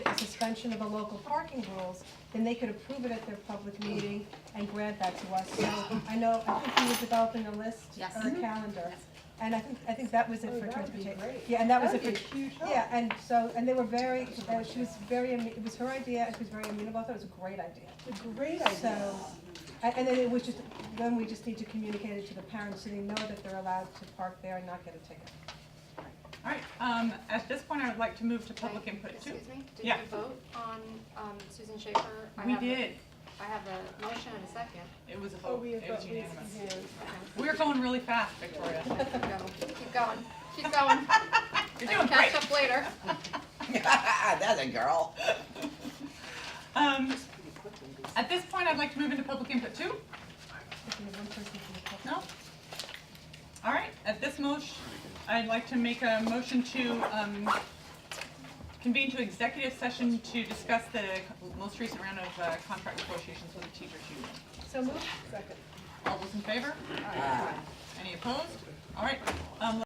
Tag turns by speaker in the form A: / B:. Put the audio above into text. A: suspension of the local parking rules, then they could approve it at their public meeting and grant that to us. So I know, I think we were developing a list
B: Yes.
A: or a calendar. And I think, I think that was it
C: Mm-hmm. Oh,
A: for
C: that would be
A: transportation.
C: great.
A: Yeah, and that was it
C: That'd
A: for.
C: be a huge help.
A: Yeah, and so, and they were very, uh, she was very, ami- it was her idea, and she was very amenable, I thought it was a great idea.
C: It's a great idea.
A: So, and, and then it was just, then we just need to communicate it to the parents, so they know that they're allowed to park there and not get a ticket.
D: All right, um, at this point, I would like to move to public input too.
E: Excuse me, did
D: Yeah.
E: we vote on um, Susan Schaefer? I
D: We
E: have a-
D: did,
E: I have a motion and a second.
D: it was a
C: Oh,
D: vote,
C: we have
D: it was
C: got Lisa's
D: unanimous.
C: hand.
D: We're going really fast, Victoria.
E: Keep going, keep going, keep going.
D: You're
E: I can
D: doing great.
E: catch up later.
F: That's a girl.
D: Um, at this point, I'd like to move into public input too.
A: If you have one person from the public-
D: No? All right, at this motion, I'd like to make a motion to um, convene to executive session to discuss the most recent round of uh, contract negotiations with the teachers union.
A: So moved?
C: Second.
D: All those in favor? Any opposed? All right, um,